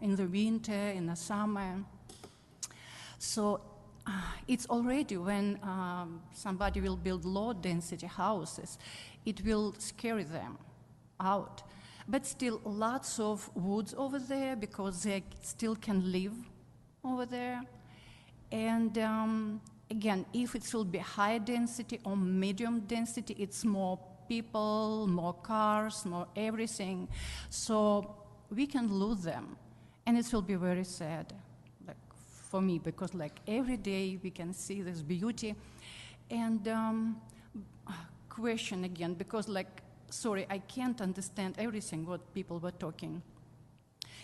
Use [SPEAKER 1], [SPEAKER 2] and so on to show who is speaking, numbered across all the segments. [SPEAKER 1] in the winter, in the summer. So uh, it's already when um, somebody will build low density houses, it will scare them out. But still, lots of woods over there because they still can live over there. And um, again, if it will be high density or medium density, it's more people, more cars, more everything. So we can lose them, and it will be very sad, like for me, because like every day we can see this beauty. And um, question again, because like sorry, I can't understand everything what people were talking.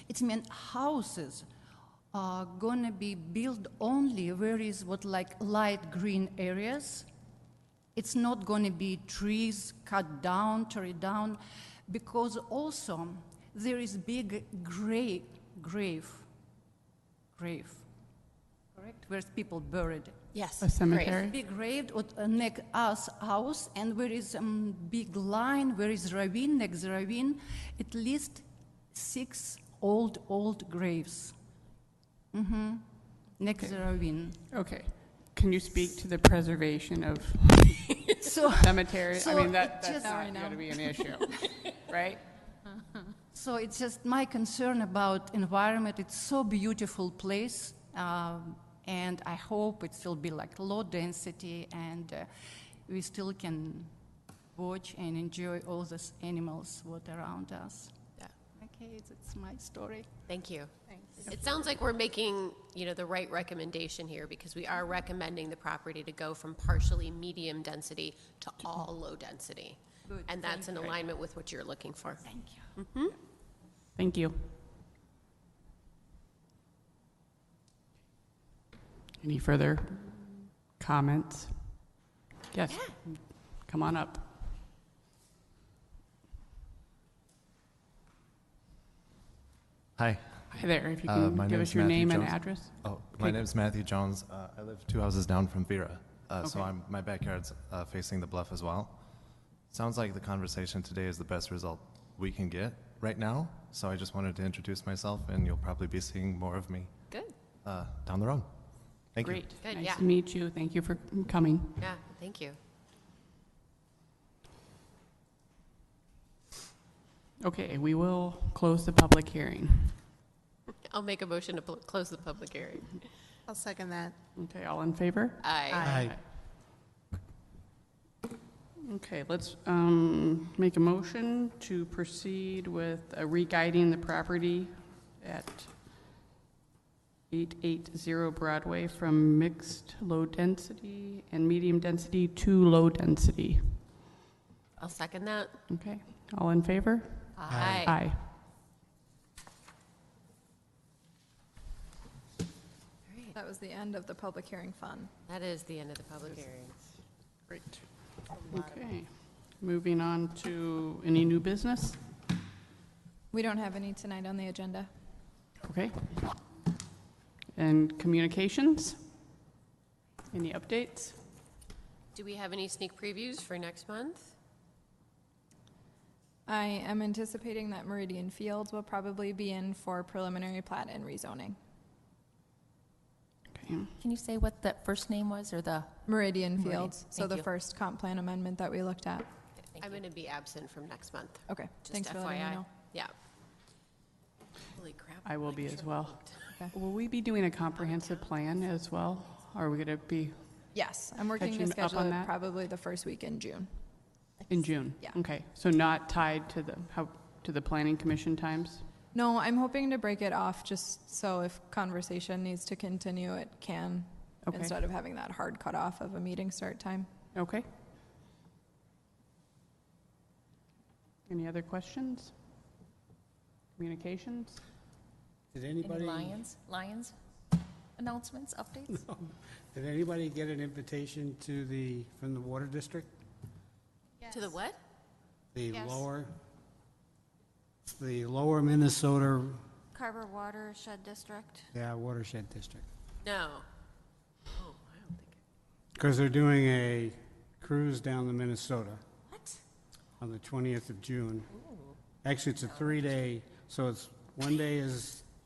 [SPEAKER 1] It's mean houses are gonna be built only where is what like light green areas. It's not gonna be trees cut down, tore down, because also there is big grave, grave, grave, correct? Where's people buried?
[SPEAKER 2] Yes.
[SPEAKER 3] A cemetery.
[SPEAKER 1] Big grave at uh, neck us house, and where is um, big line, where is ravine, next ravine, at least six old, old graves. Mm-hmm. Next ravine.
[SPEAKER 3] Okay. Can you speak to the preservation of
[SPEAKER 1] So,
[SPEAKER 3] cemeteries? I
[SPEAKER 1] So
[SPEAKER 3] mean, that,
[SPEAKER 1] it
[SPEAKER 3] that's
[SPEAKER 1] just- Now I
[SPEAKER 3] not
[SPEAKER 2] know.
[SPEAKER 3] going to be an issue, right?
[SPEAKER 1] so it's just my concern about environment. It's so beautiful place, um, and I hope it will be like low density, and uh, we still can watch and enjoy all these animals what around us.
[SPEAKER 2] Yeah.
[SPEAKER 1] Okay, it's, it's my story.
[SPEAKER 2] Thank you. Thanks. It sounds like we're making, you know, the right recommendation here because we are recommending the property to go from partially medium density to all low density.
[SPEAKER 1] Good,
[SPEAKER 2] And that's in alignment with what you're looking for.
[SPEAKER 1] Thank you.
[SPEAKER 3] Thank you. Any further comments? Yes. Come on up.
[SPEAKER 4] Hi.
[SPEAKER 3] Hi there, if you
[SPEAKER 4] Uh, my
[SPEAKER 3] can give
[SPEAKER 4] name's
[SPEAKER 3] us your
[SPEAKER 4] Matthew
[SPEAKER 3] name and
[SPEAKER 4] Jones.
[SPEAKER 3] address.
[SPEAKER 4] Oh, my
[SPEAKER 3] Okay.
[SPEAKER 4] name's Matthew Jones. Uh, I live two houses down from Vera, uh, so
[SPEAKER 3] Okay.
[SPEAKER 4] I'm my backyard's uh, facing the bluff as well. Sounds like the conversation today is the best result we can get right now. So I just wanted to introduce myself, and you'll probably be seeing more of me
[SPEAKER 2] Good.
[SPEAKER 4] uh, down the road. Thank you.
[SPEAKER 3] Great.
[SPEAKER 2] Good,
[SPEAKER 3] Nice
[SPEAKER 2] yeah.
[SPEAKER 3] to meet you. Thank you for coming.
[SPEAKER 2] Yeah, thank you.
[SPEAKER 3] Okay, we will close the public hearing.
[SPEAKER 2] I'll make a motion to pl- close the public hearing.
[SPEAKER 5] I'll second that.
[SPEAKER 3] Okay, all in favor?
[SPEAKER 2] Aye.
[SPEAKER 3] Okay, let's um, make a motion to proceed with uh, re-guiding the property at 880 Broadway from mixed low density and medium density to low density.
[SPEAKER 2] I'll second that.
[SPEAKER 3] Okay, all in favor?
[SPEAKER 2] Aye.
[SPEAKER 3] Aye.
[SPEAKER 2] Great.
[SPEAKER 6] That was the end of the public hearing fun.
[SPEAKER 2] That is the end of the public hearing.
[SPEAKER 3] Great. Okay, moving on to any new business?
[SPEAKER 6] We don't have any tonight on the agenda.
[SPEAKER 3] Okay. And communications? Any updates?
[SPEAKER 2] Do we have any sneak previews for next month?
[SPEAKER 6] I am anticipating that Meridian Fields will probably be in for preliminary plat and rezoning.
[SPEAKER 3] Okay.
[SPEAKER 7] Can you say what the first name was or the?
[SPEAKER 6] Meridian
[SPEAKER 7] Meridian,
[SPEAKER 6] Fields, so
[SPEAKER 7] thank
[SPEAKER 6] the
[SPEAKER 7] you.
[SPEAKER 6] first comp plan amendment that we looked at.
[SPEAKER 2] I'm going to be absent from next month.
[SPEAKER 6] Okay,
[SPEAKER 2] Just
[SPEAKER 6] thanks for letting me
[SPEAKER 2] FYI.
[SPEAKER 6] know.
[SPEAKER 2] Yeah. Holy crap.
[SPEAKER 3] I will
[SPEAKER 2] I'm
[SPEAKER 3] be
[SPEAKER 2] sure
[SPEAKER 3] as well.
[SPEAKER 2] booked.
[SPEAKER 3] Will we be doing a comprehensive plan as well? Are we going to be
[SPEAKER 6] Yes, I'm working to
[SPEAKER 3] Catching up
[SPEAKER 6] schedule
[SPEAKER 3] on
[SPEAKER 6] it
[SPEAKER 3] that?
[SPEAKER 6] probably the first week in June.
[SPEAKER 3] in June?
[SPEAKER 6] Yeah.
[SPEAKER 3] Okay, so not tied to the, how, to the planning commission times?
[SPEAKER 6] No, I'm hoping to break it off just so if conversation needs to continue, it can,
[SPEAKER 3] Okay.
[SPEAKER 6] instead of having that hard cutoff of a meeting start time.
[SPEAKER 3] Okay. Any other questions? Communications?
[SPEAKER 8] Did
[SPEAKER 7] any
[SPEAKER 8] anybody,
[SPEAKER 7] Lions, Lions announcements, updates?
[SPEAKER 8] did anybody get an invitation to the, from the water district?
[SPEAKER 2] To the what?
[SPEAKER 8] The
[SPEAKER 9] Yes.
[SPEAKER 8] lower, the lower Minnesota,
[SPEAKER 9] Carver Watershed District.
[SPEAKER 8] yeah, watershed district.
[SPEAKER 2] No. Oh, I don't think.
[SPEAKER 8] Because they're doing a cruise down the Minnesota
[SPEAKER 9] What?
[SPEAKER 8] on the 20th of June. Actually, it's a three-day, so it's, one day is